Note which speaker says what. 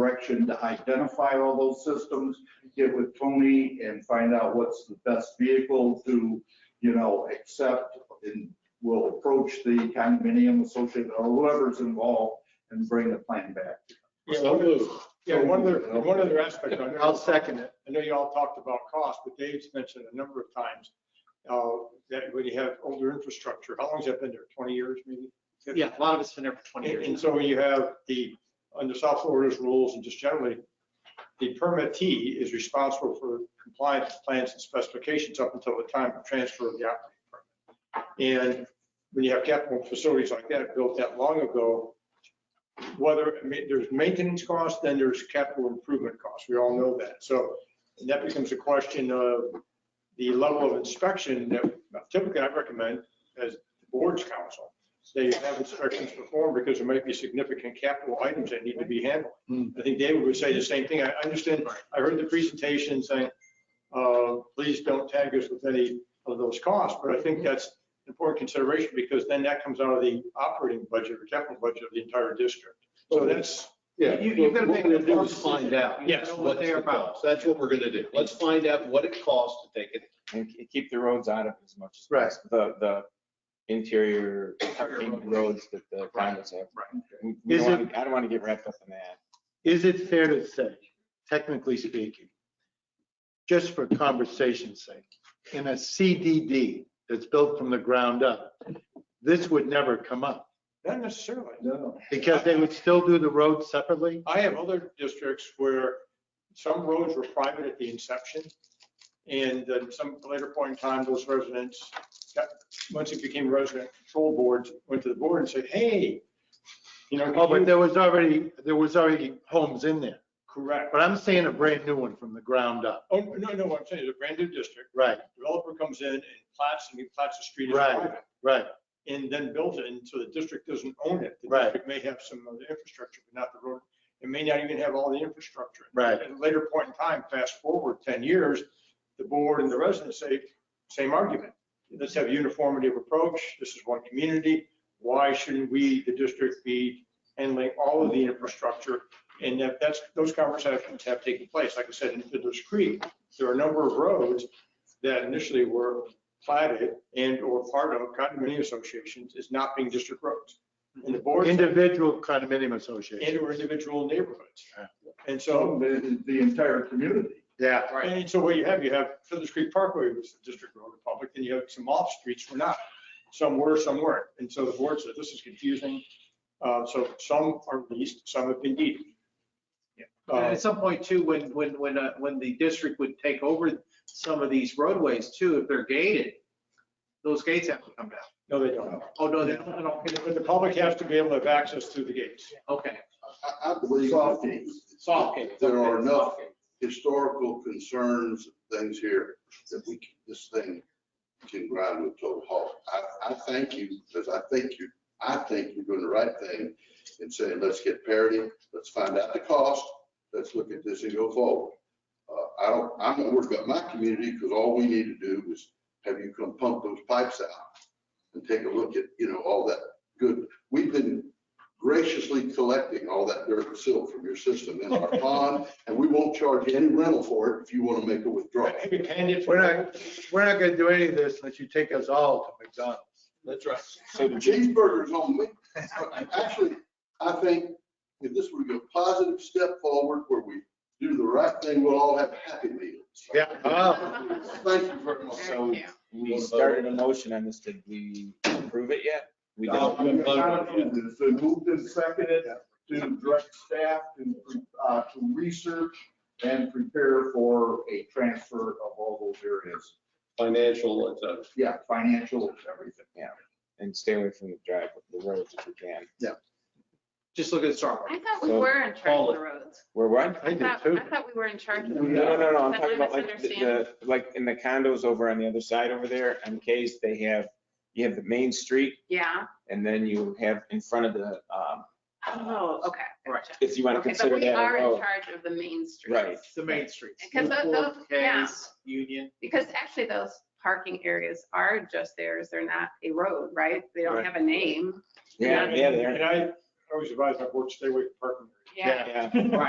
Speaker 1: direction to identify all those systems, get with Tony and find out what's the best vehicle to, you know, accept and we'll approach the condominium associate or whoever's involved and bring the plan back.
Speaker 2: So moved.
Speaker 3: Yeah, one other, one other aspect, I know,
Speaker 4: I'll second it.
Speaker 3: I know you all talked about cost, but Dave's mentioned a number of times uh, that when you have older infrastructure, how long's that been there? 20 years maybe?
Speaker 4: Yeah, a lot of it's been there for 20
Speaker 3: And-
Speaker 4: years.
Speaker 3: And so when you have the, under South Florida's rules and just generally, the permittee is responsible for compliance with plans and specifications up until the time of transfer of the operating permit. And when you have capital facilities like that built that long ago, whether, I mean, there's maintenance costs, then there's capital improvement costs. We all know that. So that becomes a question of the level of inspection that typically I recommend as the board's counsel they have inspections performed because there might be significant capital items that need to be handled. I think David would say the same thing. I I understand, I heard the presentation saying, uh, please don't tag us with any of those costs, but I think that's an important consideration because then that comes out of the operating budget or capital budget of the entire district. So that's,
Speaker 2: Yeah.
Speaker 1: You- you've gotta
Speaker 2: What
Speaker 1: make
Speaker 2: we're
Speaker 1: a
Speaker 2: gonna do is
Speaker 1: decision.
Speaker 2: find out.
Speaker 3: Yes,
Speaker 2: what's
Speaker 1: what they're
Speaker 2: the
Speaker 1: about.
Speaker 2: cost. That's what we're gonna do. Let's find out what it costs to take it.
Speaker 5: and k- keep the roads out of it as much as
Speaker 4: Right.
Speaker 5: possible. The, the interior roads that the condos have. We- we
Speaker 4: Is
Speaker 5: don't wanna- I don't want to get wrapped up in that.
Speaker 4: Is it fair to say, technically speaking, just for conversation's sake, in a CDD that's built from the ground up, this would never come up
Speaker 3: not necessarily.
Speaker 1: No.
Speaker 4: because they would still do the road separately?
Speaker 3: I have other districts where some roads were private at the inception. And at some later point in time, those residents, got- once it became resident control boards, went to the board and said, hey, you know.
Speaker 4: Oh, but
Speaker 3: you-"
Speaker 4: there was already, there was already homes in there,
Speaker 3: Correct.
Speaker 4: but I'm saying a brand new one from the ground up.
Speaker 3: Oh, no, no, what I'm saying, is a brand new district,
Speaker 4: Right,
Speaker 3: developer comes in and plats, and he plats the street as
Speaker 4: Right.
Speaker 3: private.
Speaker 4: right.
Speaker 3: And then builds it, and so the district doesn't own it. The
Speaker 4: Right.
Speaker 3: district may have some of the infrastructure, but not the road. It may not even have all the infrastructure.
Speaker 4: Right.
Speaker 3: At a later point in time, fast forward 10 years, the board and the residents say, same argument. Let's have uniformity of approach. This is one community. Why shouldn't we, the district, be handling all of the infrastructure? And that, that's, those conversations have taken place. Like I said, in Fiddler's Creek, there are a number of roads that initially were platted and or part of condominium associations is not being district roads. And the board and
Speaker 4: Individual condominium association.
Speaker 3: or individual neighborhoods.
Speaker 4: Yeah.
Speaker 3: And so
Speaker 1: So the, the entire community.
Speaker 4: Yeah.
Speaker 3: and so what you have, you have Fiddler's Creek Parkway was a district road public, and you have some off streets were not. Some were, some weren't. And so the board said, this is confusing. Uh, So some are leased, some have been deeded.
Speaker 6: And
Speaker 3: Uh,
Speaker 6: at some point too, when, when, when, uh, when the district would take over some of these roadways too, if they're gated, those gates have to come down.
Speaker 3: No, they don't.
Speaker 6: Oh, no, they don't, they don't.
Speaker 3: But the public has to be able to have access through the gates.
Speaker 6: okay.
Speaker 7: I, I believe
Speaker 1: Soft
Speaker 7: that
Speaker 1: gates.
Speaker 6: Soft gates.
Speaker 7: there are
Speaker 6: okay,
Speaker 7: enough
Speaker 6: soft gates.
Speaker 7: historical concerns, things here, that we, can- this thing can grind to a total halt. I, I thank you, because I think you, I think you're doing the right thing in saying, let's get parity, let's find out the cost, let's look at this and go forward. Uh, I don't, I'm not worried about my community, because all we need to do is have you come pump those pipes out and take a look at, you know, all that good. We've been graciously collecting all that dirt and silt from your system in our pond, and we won't charge you any rental for it if you want to make a withdrawal.
Speaker 3: Have you panned it?
Speaker 4: We're not, we're not gonna do any of this unless you take us all to McDonald's.
Speaker 2: That's right.
Speaker 5: So did you,
Speaker 7: Cheeseburgers on me. Actually, I think if this were a positive step forward where we do the right thing, we'll all have happy meals.
Speaker 4: Yeah.
Speaker 7: Thank you very much.
Speaker 5: so we started a motion on this. Did we approve it yet? We did.
Speaker 2: No.
Speaker 1: Um, It's been moved and seconded to direct staff to, uh, to research and prepare for a transfer of all those areas.
Speaker 2: Financial, it's
Speaker 3: uh,
Speaker 2: a.
Speaker 1: Yeah, financial, everything.
Speaker 5: And stay away from the drive, the roads if we can.
Speaker 6: Just look at Starbucks.
Speaker 8: I thought we were in charge of the roads.
Speaker 5: We're what?
Speaker 4: I
Speaker 8: I
Speaker 4: do
Speaker 8: thought,
Speaker 4: too.
Speaker 8: I thought we were in charge of the
Speaker 5: No,
Speaker 8: roads.
Speaker 5: no, no, no. I'm
Speaker 8: Did I
Speaker 5: talking about like the-
Speaker 8: misunderstand?
Speaker 5: the, like in the condos over on the other side over there, MKs, they have, you have the main street
Speaker 8: Yeah,
Speaker 5: and then you have in front of the, um,
Speaker 8: oh, okay. gotcha.
Speaker 5: if you want to
Speaker 8: Okay, but
Speaker 5: consider
Speaker 8: we
Speaker 5: that a
Speaker 8: are in
Speaker 5: road.
Speaker 8: charge of the main streets.
Speaker 5: Right.
Speaker 6: The main streets.
Speaker 8: Because those- those- yeah.
Speaker 6: 4Ks, Union.
Speaker 8: Because actually those parking areas are just theirs. They're not a road, right? They don't
Speaker 4: Right.
Speaker 8: have a name.
Speaker 5: Yeah, yeah, they are.
Speaker 3: And I always advise my board to stay away from parking areas.
Speaker 8: Yeah.
Speaker 5: Yeah.